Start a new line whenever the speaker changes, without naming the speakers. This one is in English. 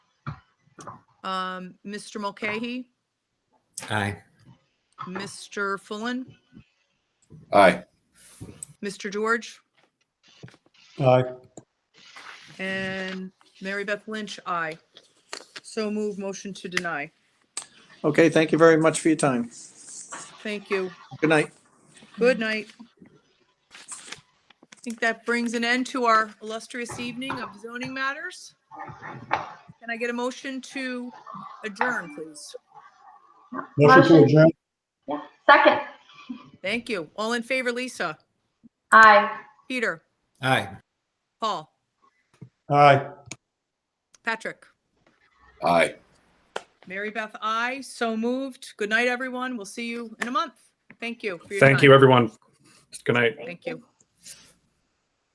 Um, Mr. Mulcahy,
Aye.
Mr. Fullen,
Aye.
Mr. George,
Aye.
and Mary Beth Lynch, aye. So move motion to deny.
Okay, thank you very much for your time.
Thank you.
Good night.
Good night. I think that brings an end to our illustrious evening of zoning matters. Can I get a motion to adjourn, please?
Motion to adjourn. Second.
Thank you. All in favor, Lisa,
Aye.
Peter,
Aye.
Paul,
Aye.
Patrick,
Aye.
Mary Beth, I. So moved. Good night, everyone. We'll see you in a month. Thank you. for your
Thank
time.
you, everyone. Good night.
Thank you.